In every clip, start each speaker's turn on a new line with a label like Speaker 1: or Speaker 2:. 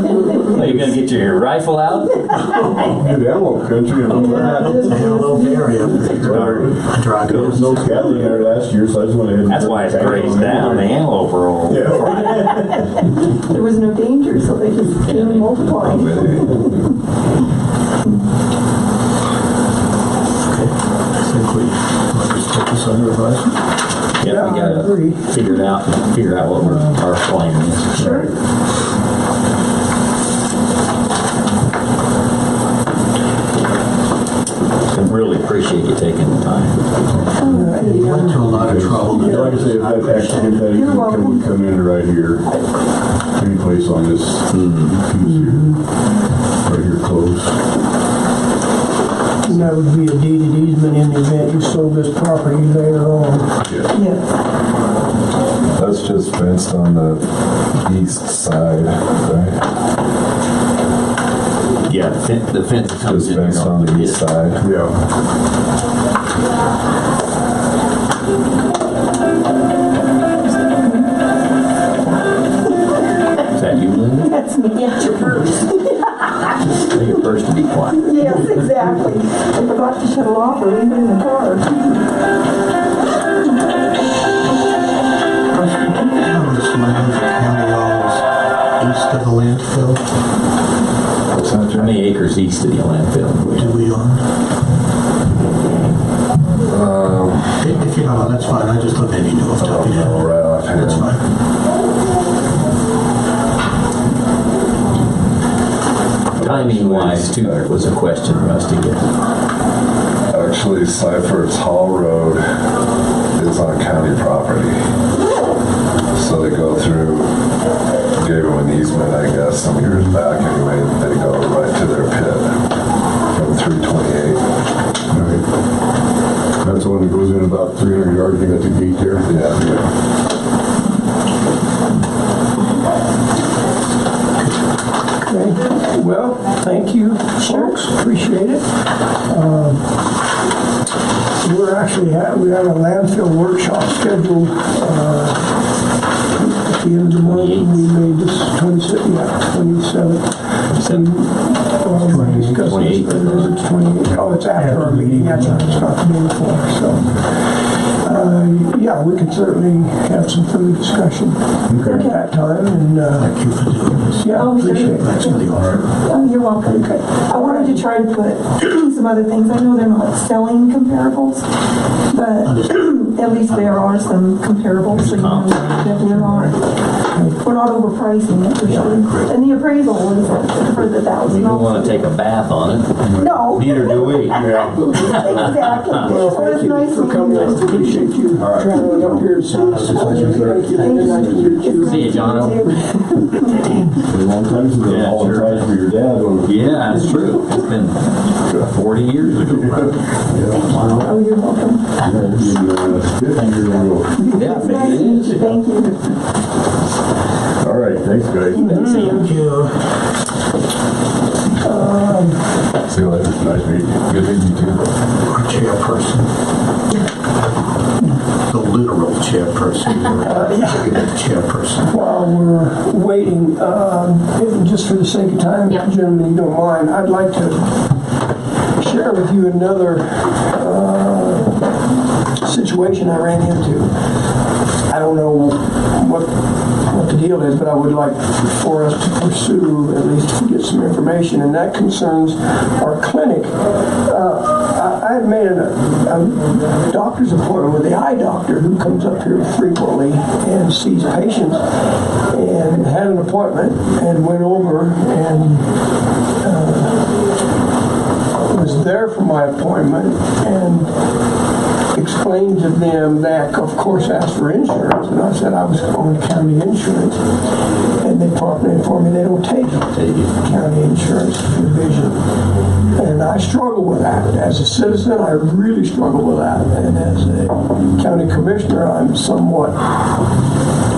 Speaker 1: Are you gonna get your rifle out?
Speaker 2: Good ammo country, and all that.
Speaker 3: It's a little area.
Speaker 2: There was no cattle in there last year, so I just went ahead and.
Speaker 1: That's why it's grazed down, the antelope are all.
Speaker 2: Yeah.
Speaker 4: There was no danger, so they just came and multiplied.
Speaker 3: I think we might just take this under advisement.
Speaker 1: Yeah, we gotta figure it out, figure out what we're, our plan is. Sure. Really appreciate you taking the time.
Speaker 4: Oh,
Speaker 3: We went to a lot of trouble. to do
Speaker 2: Like I
Speaker 3: this.
Speaker 2: say, if that accident, that even can would come in right here, any place on this,
Speaker 1: Hmm.
Speaker 2: who's here, right here close.
Speaker 5: And that would be a deed of easement in the event you sold this property later on.
Speaker 2: Yeah.
Speaker 4: Yes,
Speaker 6: That's just fenced on the east side, right?
Speaker 1: Yeah, the fence, the fence comes
Speaker 6: Just
Speaker 1: in.
Speaker 6: fenced on the east side.
Speaker 2: Yeah.
Speaker 1: Is that you, Linda?
Speaker 4: that's me. Yes, your purse.
Speaker 1: You're your first to be quiet.
Speaker 4: Yes, exactly. I forgot to shut it off or leave it in the car.
Speaker 3: How does Monmouth County always east of the landfill?
Speaker 1: How many acres east of the landfill?
Speaker 3: Do we own?
Speaker 2: Um,
Speaker 3: If if you don't know, that's fine. I just thought maybe you knew off the top of your head.
Speaker 6: Right off here.
Speaker 3: That's fine.
Speaker 1: Timing wise too, was a question for us to get.
Speaker 6: Actually, Cypher's Hall Road is on county property. So they go through, gave them an easement, I guess, some years back anyway, they go right to their pit from 328.
Speaker 2: Alright. That's the one that goes in about three hundred yards, you got the gate there.
Speaker 6: Yeah, yeah.
Speaker 5: Okay, well, thank you, folks, appreciate it. Um, We're actually, ha- we have a landfill workshop scheduled uh, at the end of the month. We made this 27th, yeah, 27th. Well, we might discuss this
Speaker 1: 28th.
Speaker 5: later. It's 28th. Oh, it's after our meeting, that's right, it's not the day before, so. uh, Yeah, we can certainly have some further discussion at that time, and, uh,
Speaker 3: Thank you for doing this.
Speaker 5: yeah,
Speaker 4: Oh, sure.
Speaker 5: appreciate it.
Speaker 3: Thanks for the offer.
Speaker 4: Oh, you're welcome. I wanted to try to put some other things. I know they're not selling comparables, but at least there are some comparables, so you know that there are. We're not overpricing it for sure. And the appraisal was for the
Speaker 1: We
Speaker 4: thousand.
Speaker 1: don't wanna take a bath on it.
Speaker 4: No,
Speaker 1: Neither do we.
Speaker 4: exactly. So it's nice
Speaker 5: For
Speaker 4: meeting
Speaker 5: coming, I
Speaker 4: you.
Speaker 5: appreciate you traveling up here and seeing us. Thank you. Nice to meet you.
Speaker 1: See you, John.
Speaker 2: A long time, since
Speaker 1: Yeah,
Speaker 2: I've all the
Speaker 1: sure.
Speaker 2: time for your dad on the.
Speaker 1: Yeah, that's true. It's been forty years ago, right?
Speaker 4: Oh, you're welcome.
Speaker 1: Yeah,
Speaker 4: It's
Speaker 1: maybe
Speaker 4: nice
Speaker 1: it
Speaker 4: to meet
Speaker 1: is.
Speaker 4: you. Thank you.
Speaker 2: Alright, thanks guys.
Speaker 1: See ya.
Speaker 3: Thank you.
Speaker 6: See you later. Nice meeting you. Good meeting you too.
Speaker 3: Our chairperson. The literal chairperson. The Chairperson.
Speaker 5: While we're waiting, uh, if- just for the sake of time,
Speaker 7: Yep.
Speaker 5: gentlemen, you don't mind, I'd like to share with you another uh, situation I ran into. I don't know what, what the deal is, but I would like for us to pursue, at least to get some information, and that concerns our clinic. Uh, I I had made a, a doctor's appointment with the eye doctor who comes up here frequently and sees patients, and had an appointment, and went over and uh, was there for my appointment and explained to them that, of course, asked for insurance, and I said I was on county insurance, and they promptly informed me they don't take county insurance for vision. And I struggle with that. As a citizen, I really struggle with that, and as a county commissioner, I'm somewhat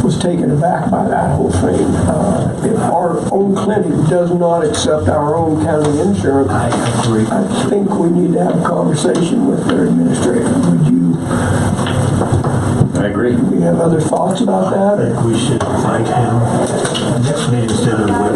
Speaker 5: was taken aback by that whole thing. Uh, If our own clinic does not accept our own county insurance, I think we need to have a conversation with their administrator. Would you,
Speaker 1: I agree.
Speaker 5: we have other thoughts about that?
Speaker 3: I think we should invite him. Next meeting instead of the